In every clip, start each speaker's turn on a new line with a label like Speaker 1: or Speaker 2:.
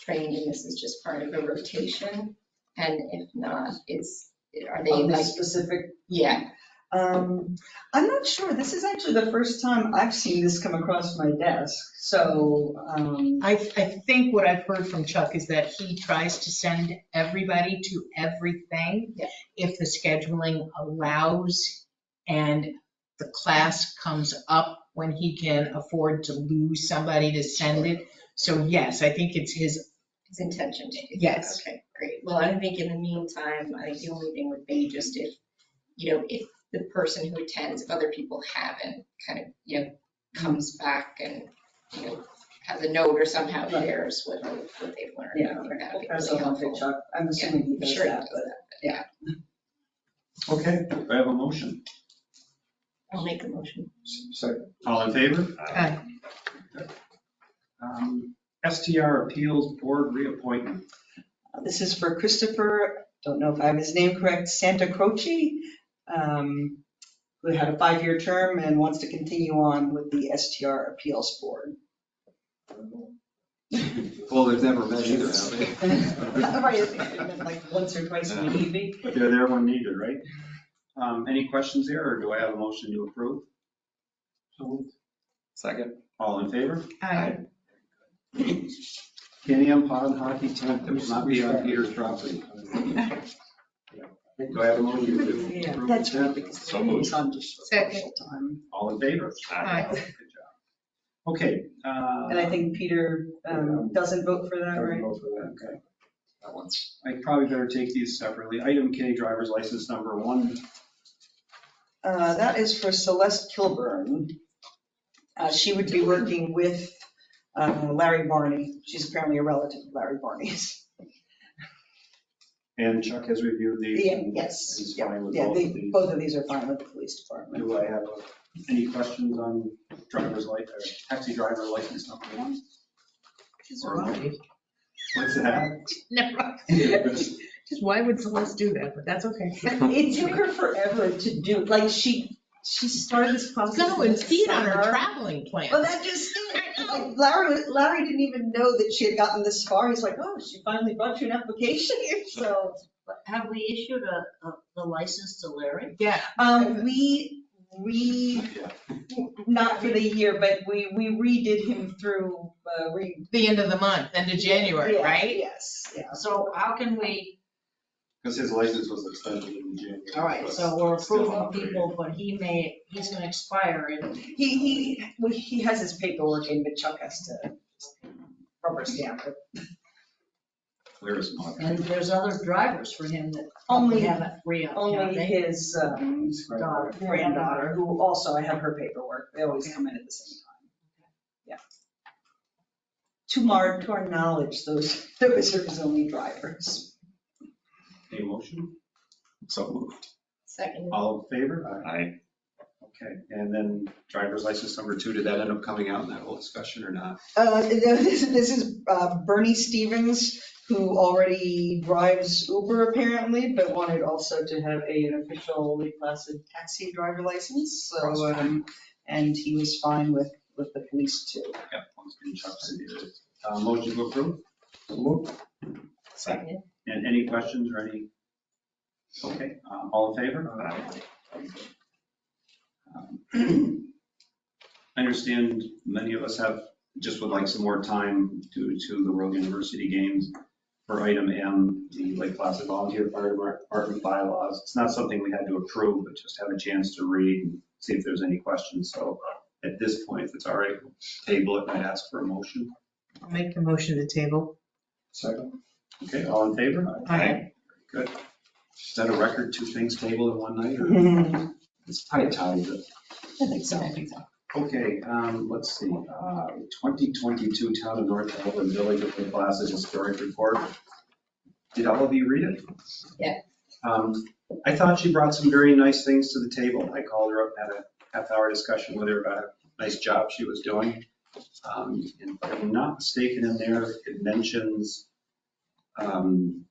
Speaker 1: trained and this is just part of a rotation? And if not, it's, are they
Speaker 2: Of the
Speaker 1: like,
Speaker 2: specific,
Speaker 1: yeah,
Speaker 2: um, I'm not sure, this is actually the first time I've seen this come across my desk, so, um,
Speaker 3: I, I think what I've heard from Chuck is that he tries to send everybody to everything
Speaker 1: Yeah.
Speaker 3: if the scheduling allows and the class comes up when he can afford to lose somebody to send it. So yes, I think it's his,
Speaker 1: his intention to do that?
Speaker 3: Yes.
Speaker 1: Okay, great. Well, I think in the meantime, I think the only thing would be just if, you know, if the person who attends, if other people haven't, kind of, you know, comes back and, you know, has a note or somehow
Speaker 2: Right.
Speaker 1: shares what, what they've learned.
Speaker 2: yeah.
Speaker 1: I think that would be
Speaker 2: As
Speaker 1: really
Speaker 2: a hunter,
Speaker 1: helpful.
Speaker 2: Chuck, I'm assuming he
Speaker 1: I'm
Speaker 2: does
Speaker 1: sure he
Speaker 2: that,
Speaker 1: does
Speaker 2: but.
Speaker 1: that.
Speaker 4: Okay, I have a motion.
Speaker 1: I'll make a motion.
Speaker 4: Second. All in favor?
Speaker 3: Aye.
Speaker 4: Um, STR Appeals Board reappointment.
Speaker 2: um, This is for Christopher, don't know if I have his name correct, Santa Croce, um, who had a five-year term and wants to continue on with the STR Appeals Board.
Speaker 5: Well, they've never met either, have they?
Speaker 2: Right, I think I met Like once or twice in the evening.
Speaker 4: They're there when needed, right? Um, Any questions there, or do I have a motion to approve?
Speaker 5: Second.
Speaker 4: All in favor?
Speaker 3: I,
Speaker 4: Can Pond Hockey Tent that will not be on Peter's property. Do I have a motion to approve?
Speaker 2: Yeah, that's right, because
Speaker 5: So
Speaker 2: it's on just special
Speaker 3: Second.
Speaker 2: time.
Speaker 4: All in favor?
Speaker 3: Aye.
Speaker 4: Good job. Okay. uh,
Speaker 2: And I think Peter um, doesn't vote for that, right?
Speaker 4: Okay. That one's, I probably better take these separately. Item K, driver's license number one.
Speaker 2: Uh, That is for Celeste Kilburn. Uh, She would be working with uh, Larry Barney. She's apparently a relative of Larry Barney's.
Speaker 4: And Chuck has reviewed these.
Speaker 2: Yeah,
Speaker 4: and
Speaker 2: yes,
Speaker 4: He's fine with
Speaker 2: Yeah,
Speaker 4: both of
Speaker 2: they,
Speaker 4: these.
Speaker 2: both of these are fine with the police department.
Speaker 4: Do I have uh, any questions on driver's license, or taxi driver license number one?
Speaker 3: just
Speaker 4: Or
Speaker 3: why?
Speaker 4: What's that?
Speaker 3: Never, just why would Celeste do that? But that's okay.
Speaker 2: It took her forever to do, like, she, she started this process.
Speaker 3: Go and feed on her
Speaker 2: summer.
Speaker 3: traveling
Speaker 2: Well,
Speaker 3: plan.
Speaker 2: that just, it. Like, Larry, Larry didn't even know that she had gotten this far. He's like, oh, she finally brought you an application here, so.
Speaker 6: Have we issued a, a, the license to Larry?
Speaker 3: Yeah,
Speaker 2: Um, we, we, not for the year, but we, we redid him through, uh, re.
Speaker 3: the end of the month, end of January,
Speaker 2: Yeah,
Speaker 3: right?
Speaker 2: Yes, yeah.
Speaker 6: So how can we,
Speaker 4: Because his license was extended in January.
Speaker 6: all right, so we're approving people, but he may, he's gonna expire and
Speaker 2: He, he, well, he has his paperwork in, but Chuck has to rubber stamp it.
Speaker 4: Where is my?
Speaker 6: and there's other drivers for him that we
Speaker 2: Only,
Speaker 6: haven't re-upped. have
Speaker 2: only
Speaker 6: they?
Speaker 2: his um,
Speaker 6: Daughter.
Speaker 2: granddaughter, who also, I have her paperwork. They always come in at the same time. Yeah. To our, to our knowledge, those, those are his only drivers.
Speaker 4: A motion?
Speaker 5: So moved.
Speaker 1: Second.
Speaker 4: All in favor?
Speaker 5: Aye.
Speaker 4: Okay, and then driver's license number two, did that end up coming out in that whole discussion or not?
Speaker 2: Uh, This this is uh, Bernie Stevens, who already drives Uber apparently, but wanted also to have a- an officially classed taxi driver license. So, um, and he was fine with, with the police too.
Speaker 4: Yep, one's been chopped and deleted. Uh, Motion to approve?
Speaker 1: Second.
Speaker 4: And any questions or any? Okay, uh, all in favor? Um, I understand many of us have, just would like some more time due to the World University Games for item M, the Lake Placid Volunteer Fire Department bylaws. It's not something we had to approve, but just have a chance to read and see if there's any questions. So at this point, if it's all right, table it and ask for a motion.
Speaker 3: I'll Make the motion to table.
Speaker 4: Second. Okay, all in favor?
Speaker 3: Aye.
Speaker 4: Good. Is that a record, two things tabled in one night, or
Speaker 2: I
Speaker 4: it's probably tied, but,
Speaker 2: think so.
Speaker 4: okay, um, let's see, uh, 2022 Town of North Dublin Village of the Plaza Historic Report. Did all of you read it?
Speaker 1: Yeah.
Speaker 4: Um, I thought she brought some very nice things to the table. I called her up, and had a half-hour discussion with her about a nice job she was doing. Um, and if I'm not mistaken, in there, it mentions, um,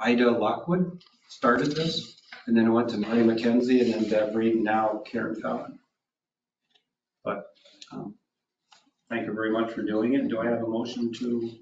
Speaker 4: Ida Lockwood started this, and then it went to Mary McKenzie, and then Deb Reed, and now Karen Fallon. But, um, thank you very much for doing it. Do I have a motion to